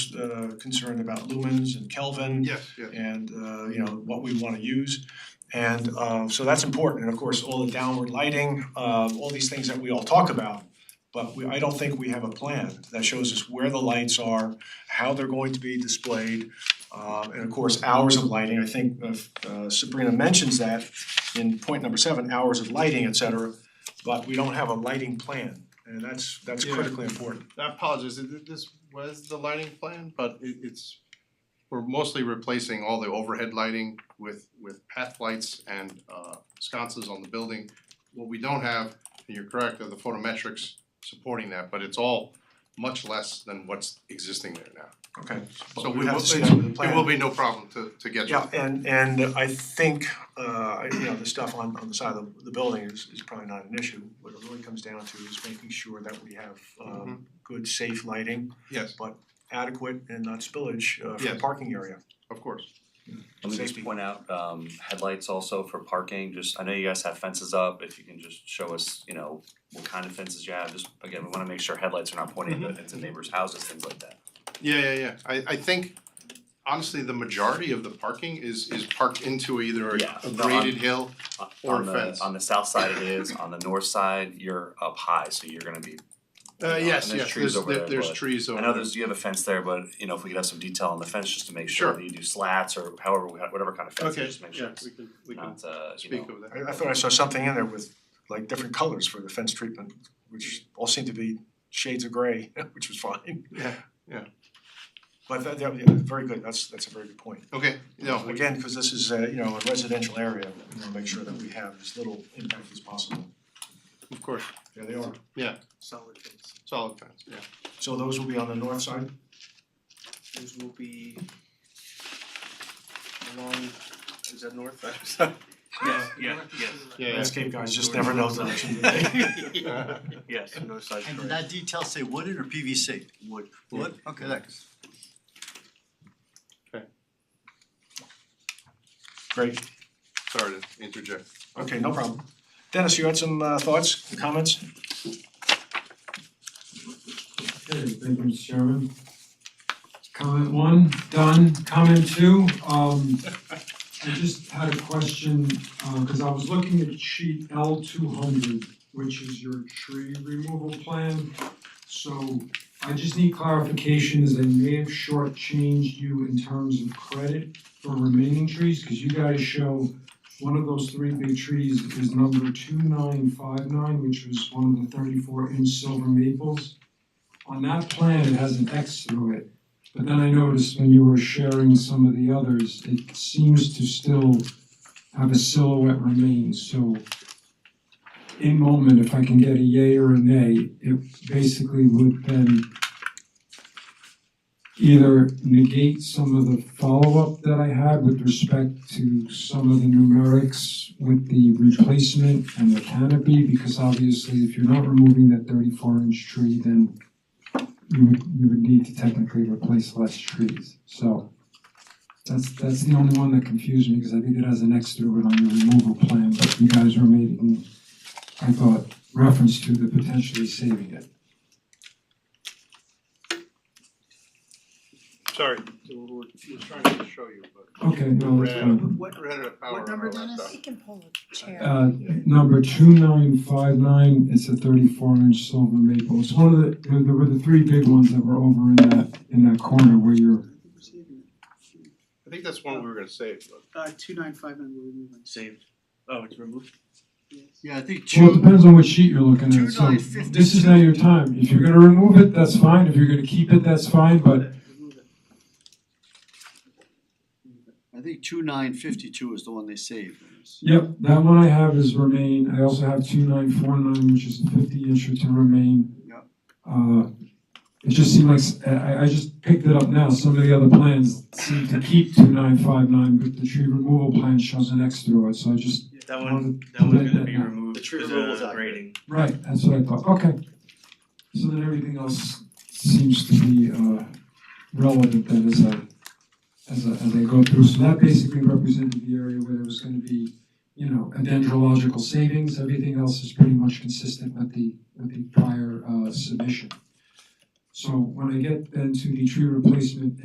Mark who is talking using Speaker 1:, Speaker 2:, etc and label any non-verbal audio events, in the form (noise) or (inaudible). Speaker 1: expressed uh concern about lumens and Kelvin
Speaker 2: Yeah, yeah.
Speaker 1: and uh you know, what we wanna use. And uh so that's important, and of course, all the downward lighting, uh all these things that we all talk about. But we, I don't think we have a plan that shows us where the lights are, how they're going to be displayed. Uh and of course, hours of lighting, I think uh, uh Sabrina mentions that in point number seven, hours of lighting, et cetera. But we don't have a lighting plan, and that's that's
Speaker 2: Yeah.
Speaker 1: critically important.
Speaker 2: I apologize, th- th- this was the lighting plan, but it it's we're mostly replacing all the overhead lighting with with path lights and uh sconces on the building. What we don't have, and you're correct, are the photometrics supporting that, but it's all much less than what's existing there now.
Speaker 1: Okay,
Speaker 2: So
Speaker 1: but
Speaker 2: we
Speaker 1: we have
Speaker 2: will,
Speaker 1: to see that with the
Speaker 2: it
Speaker 1: plan.
Speaker 2: will be no problem to to get to.
Speaker 1: Yeah, and and I think uh you know, the stuff on on the side of the building is is probably not an issue. What it really comes down to is making sure that we have um good, safe lighting,
Speaker 2: Yes,
Speaker 1: adequate and not spillage uh for the
Speaker 2: Yes.
Speaker 1: parking area.
Speaker 2: of course.
Speaker 3: Let me
Speaker 1: Safety.
Speaker 3: just point out um headlights also for parking, just I know you guys have fences up, if you can just show us, you know, what kind of fences you have, just again, we wanna make sure headlights are not pointing
Speaker 2: Mm-hmm.
Speaker 3: into into neighbors' houses, things like that.
Speaker 2: Yeah, yeah, yeah. I I think honestly, the majority of the parking is is parked into either
Speaker 3: Yeah,
Speaker 2: a- a
Speaker 3: no, I'm-
Speaker 2: graded hill.
Speaker 3: Uh,
Speaker 2: Or
Speaker 3: on the-
Speaker 2: fence.
Speaker 3: On the south side it is, on the north side, you're up high, so you're gonna be,
Speaker 2: Uh yes,
Speaker 3: Uh, and there's
Speaker 2: yes,
Speaker 3: trees
Speaker 2: there's
Speaker 3: over
Speaker 2: there-
Speaker 3: there,
Speaker 2: there's
Speaker 3: but
Speaker 2: trees over
Speaker 3: I
Speaker 2: there.
Speaker 3: know there's, you have a fence there, but you know, if we could have some detail on the fence, just to make sure
Speaker 2: Sure.
Speaker 3: that you do slats or however, we have- whatever kind of fence,
Speaker 2: Okay,
Speaker 3: just make sure
Speaker 2: yeah,
Speaker 3: it's
Speaker 2: we can we can
Speaker 3: not uh, you know,
Speaker 2: speak of that.
Speaker 1: I I thought I saw something in there with like different colors for the fence treatment, which all seemed to be shades of gray, (laughs) which was fine.
Speaker 2: Yeah, yeah.
Speaker 1: But that that yeah, very good, that's that's a very good point.
Speaker 2: Okay, no, we-
Speaker 1: Again, because this is a, you know, a residential area, we wanna make sure that we have as little impact as possible.
Speaker 2: of course,
Speaker 1: Yeah, they are.
Speaker 4: solid phase.
Speaker 2: solid fence, yeah.
Speaker 1: So those will be on the north side?
Speaker 4: Those will be along, is that north? (laughs) I'm sorry.
Speaker 5: Yes, yes,
Speaker 2: Yeah,
Speaker 1: Landscape guys just never
Speaker 4: (laughs)
Speaker 1: know direction. do they?
Speaker 2: yeah.
Speaker 5: yes, yes,
Speaker 4: North side,
Speaker 6: And did
Speaker 4: correct.
Speaker 6: that detail say wooden or PVC? Wood. Wood, okay, thanks.
Speaker 1: Great,
Speaker 2: (laughs) Sorry to interject.
Speaker 1: okay, no problem. Dennis, you had some uh thoughts, comments?
Speaker 7: Okay, thank you, Mr. Chairman. Comment one, done. Comment two, um, I just had a question, uh, cause I was looking at sheet L two hundred, which is your tree removal plan. So I just need clarification, as I may have shortchanged you in terms of credit for remaining trees, cause you guys show one of those three big trees is number two nine five nine, which was one of the thirty-four inch silver maples. On that plan, it has an X through it, but then I noticed when you were sharing some of the others, it seems to still have a silhouette remain, so in moment, if I can get a yay or a nay, it basically would then either negate some of the follow-up that I had with respect to some of the numerics with the replacement and the canopy, because obviously if you're not removing that thirty-four inch tree, then you would, you would need to technically replace less trees, so. That's, that's the only one that confused me, because I think it has an X through it on the removal plan, but you guys were making, I thought, reference to the potentially saving it.
Speaker 2: Sorry, we're we're trying to show you, but
Speaker 7: Okay, no, that's fine.
Speaker 4: What,
Speaker 2: we're out of power
Speaker 4: what
Speaker 2: on
Speaker 4: number,
Speaker 2: our
Speaker 4: Dennis?
Speaker 2: laptop.
Speaker 8: He can pull a chair.
Speaker 7: Uh, number two nine five nine, it's a thirty-four inch silver maple, it's one of the, there there were the three big ones that were over in that, in that corner where you're,
Speaker 2: I think that's one we were gonna save, but
Speaker 9: Uh, two nine five nine, we're removing,
Speaker 4: saved,
Speaker 5: oh, it's removed,
Speaker 9: yes.
Speaker 6: Yeah, I think
Speaker 7: well, it
Speaker 6: two,
Speaker 7: depends on what sheet you're looking at, so
Speaker 6: 2952.
Speaker 7: this is now your time, if you're gonna remove it, that's fine, if you're gonna keep it, that's fine, but
Speaker 9: Remove it.
Speaker 6: I think two nine fifty-two is the one they saved.
Speaker 7: Yep, that one I have is remain, I also have two nine four nine, which is the fifty inch to remain.
Speaker 6: Yep.
Speaker 7: Uh, it just seemed like, s- I- I, I just picked it up now, some of the other plans seem to keep two nine five nine, but the tree removal plan shows an X through it, so I just,
Speaker 5: that
Speaker 7: one-
Speaker 5: one,
Speaker 7: that
Speaker 5: that
Speaker 7: one's
Speaker 5: one's
Speaker 7: gonna
Speaker 5: gonna
Speaker 7: be
Speaker 5: be removed
Speaker 4: The tree
Speaker 5: because
Speaker 4: removal is
Speaker 5: of
Speaker 4: accurate.
Speaker 5: grading.
Speaker 7: right, that's what I thought, okay. So then everything else seems to be, uh, relevant then as I, as I, as I go through, so that basically represented the area where there was gonna be you know, a dendrological savings, everything else is pretty much consistent with the, with the prior uh, submission. So when I get then to the tree replacement